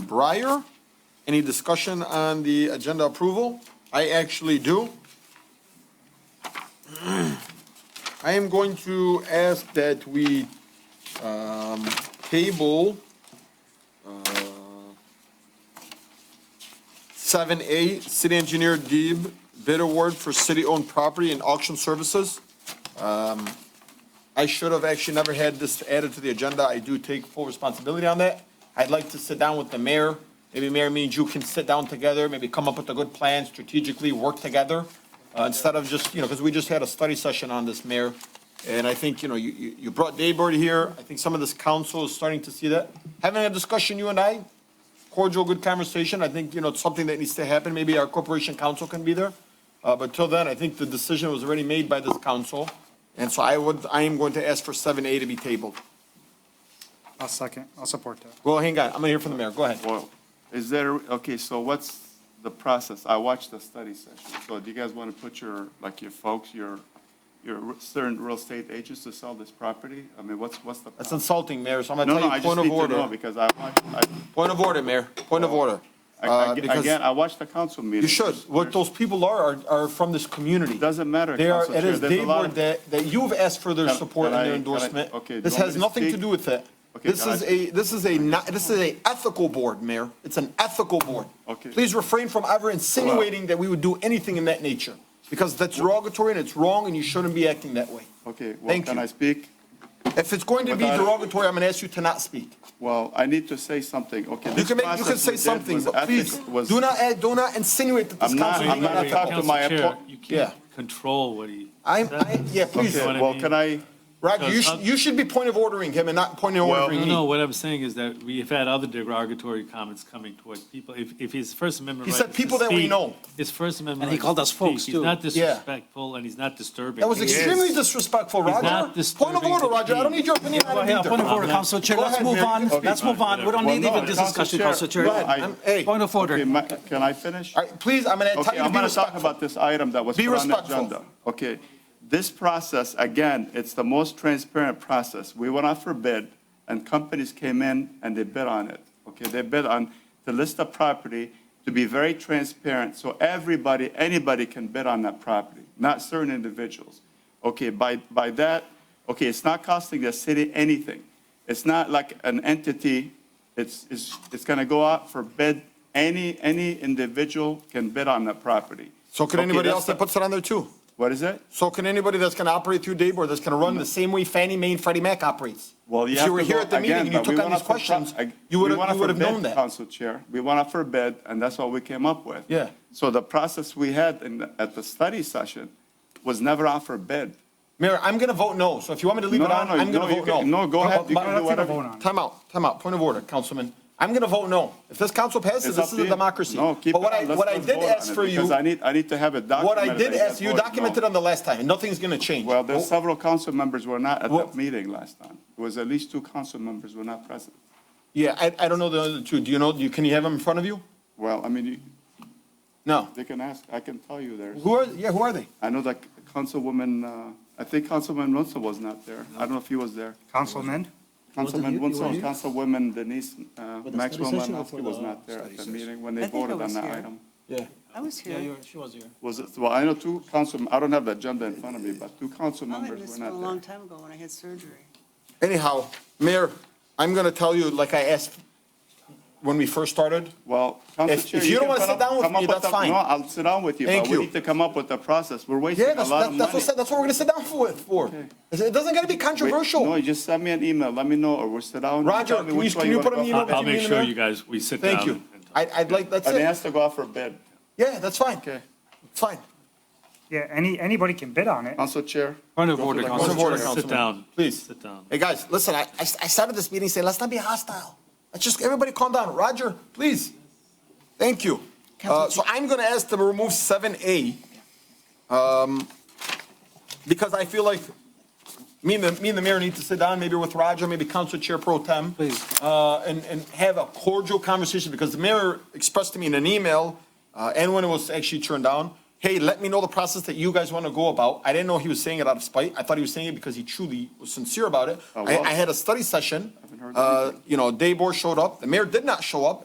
Breyer. Any discussion on the agenda approval? I actually do. I am going to ask that we um, table uh, seven A, City Engineer Deeb bid award for city-owned property and auction services. I should have actually never had this added to the agenda. I do take full responsibility on that. I'd like to sit down with the mayor. Maybe mayor, me and you can sit down together, maybe come up with a good plan, strategically work together. Uh, instead of just, you know, because we just had a study session on this, mayor. And I think, you know, you, you, you brought Daybird here. I think some of this council is starting to see that. Having a discussion, you and I, cordial, good conversation. I think, you know, it's something that needs to happen. Maybe our corporation council can be there. Uh, but till then, I think the decision was already made by this council. And so I would, I am going to ask for seven A to be tabled. I'll second, I'll support that. Well, hang on, I'm gonna hear from the mayor. Go ahead. Well, is there, okay, so what's the process? I watched the study session. So do you guys want to put your, like your folks, your, your certain real estate agents to sell this property? I mean, what's, what's the? That's process? insulting, mayor, so I'm No, gonna no, tell I you just point of need to know order. because I watched, I- Point of order, mayor, point of order. I, Uh, I- because again, I watched the council meeting. you should. What those people are, are, are from this community. Doesn't matter, They are, Council it Chair, is there's a they lot were of- that, that you've asked for their Can- support and can their I- can I- endorsement. okay, do This you want has me to nothing to speak? do with that. Okay, This can I is a, this is a not, this is a ethical board, mayor. It's an ethical board. Okay. Please refrain from ever insinuating that we would do anything in that nature, because that's derogatory and it's wrong and you shouldn't be acting that way. Okay, well, Thank can you. I speak? If it's going to be Without- derogatory, I'm gonna ask you to not speak. Well, I need to say something, okay. You this can make, you can process say we did something, was but please, ethic- was- do not add, do not insinuate that this I'm not- council is I'm not not talking- ethical. to my Council Chair, appoint- You Yeah. can't control what he. I'm, I, yeah, please, know what Okay, I well, mean? can I? Roger, you should, you should be point of ordering him and not point of Well- ordering No, me. no, what I'm saying is that we've had other derogatory comments coming towards people. If, if his First Amendment He right said is to people that we speak- know. His First And Amendment. he right is called to us folks, speak. too. He's not Yeah. disrespectful and he's not disturbing. That was extremely disrespectful, He's Roger. not Point of disturbing order, the Roger, I don't peace. need your opinion on it Yeah, either. point of order, not- Council Chair, Go let's ahead, move Mayor, you on, can speak. let's move on, we don't Well, need no, even this Council discussion, Chair, Council Chair. go ahead. I'm- hey. Point of order. Okay, ma- can I finish? All right, please, I'm gonna tell Okay, you to I'm be going to talk respectful. about this item that was Be put on the respectful. agenda. Okay, this process, again, it's the most transparent process. We went out for bid, and companies came in and they bid on it. Okay, they bid on the list of property to be very transparent, so everybody, anybody can bid on that property, not certain individuals. Okay, by, by that, okay, it's not costing the city anything. It's not like an entity, it's, it's, it's going to go out for bid, any, any individual can bid on that property. So can Okay, anybody that's else that the- puts it on there too? What is it? So can anybody that's gonna operate through Dayboard, that's gonna run the same way Fannie Mae and Freddie Mac operates? Well, you If have you were to here go at the meeting again, and you but we took on these went up for pro- questions, I- you we would went up have, you for would have bid, known that. Council Chair, we went up for bid, and that's what we came up with. Yeah. So the process we had in, at the study session was never out for bid. Mayor, I'm gonna vote no, so if you want me to leave No, it on, no, I'm no, gonna you vote no. can- no, go ahead, you But- can do but- whatever. vote on it. Time out, time out, point of order, Councilman. I'm gonna vote no. If this council passes, It's this up is to a you. democracy. No, keep it But what I, on. Let's- what I let's did vote on ask it, for you, Because I need, I need to have it what documented. I did that you ask, you voted no. documented on the Oh. last time, and nothing's gonna change. Well, there's Vote- several council members were not at Well- that meeting last time. It was at least two council members were not present. Yeah, I, I don't know the other two. Do you know, do you, can you have them in front of you? Well, I mean, you- No. they can ask, I can tell you there's. Who are, yeah, who are they? I know that Councilwoman, uh, I think Councilman Wenzel was not there. I don't know if he was there. Councilman, Councilman you- you Wenzel, were here? Councilwoman Denise uh, the Maxwell study session or for Malinowski was the not there at the study meeting session? when they I think I voted on was that here. item. Yeah. I was here. she was here. Was it, well, I know two council, I don't have the agenda in front of me, but two council I members missed were one a long not there. time ago when I had surgery. Anyhow, Mayor, I'm gonna tell you, like I asked when we first started, Well, Council If- Chair. if you don't can wanna put sit up- down with come up me, that's the- fine. No, I'll sit down with you, Thank but we you. need to come up with the process. We're wasting yeah, a that's, lot of that- that's money. what, that's what we're gonna sit down for, for. It doesn't gotta be Wait, controversial. No, just send me an email, let me know, or we'll sit down. and Roger, tell me can which you- way can you wanna put an go. email I'll I'll make sure you guys, we sit down. Thank you. and talk. I, I'd like, that's And it it. has to go out for bid. Yeah, that's fine. Okay. It's Fine. yeah, any, anybody can bid on it. Council Chair. Point of go to order, the Point Council of order, Chair, sit Councilman. down. Please. Sit down. Hey, guys, listen, I, I I started this meeting saying, let's not be hostile. Let's just, everybody calm down. Roger, please. Thank you. Uh, so I'm gonna ask them to remove seven A. Um, because I feel like me and the, me and the mayor need to sit down, maybe with Roger, maybe Council Chair Pro Tem. Please. Uh, and, and have a cordial conversation, because the mayor expressed to me in an email, uh, and when it was actually turned down, hey, let me know the process that you guys want to go about. I didn't know he was saying it out of spite. I thought he was saying it because he truly was sincere about it. Oh, I, wow. I had a study session, heard uh, anything. you know, Daybor showed up, the mayor did not show up,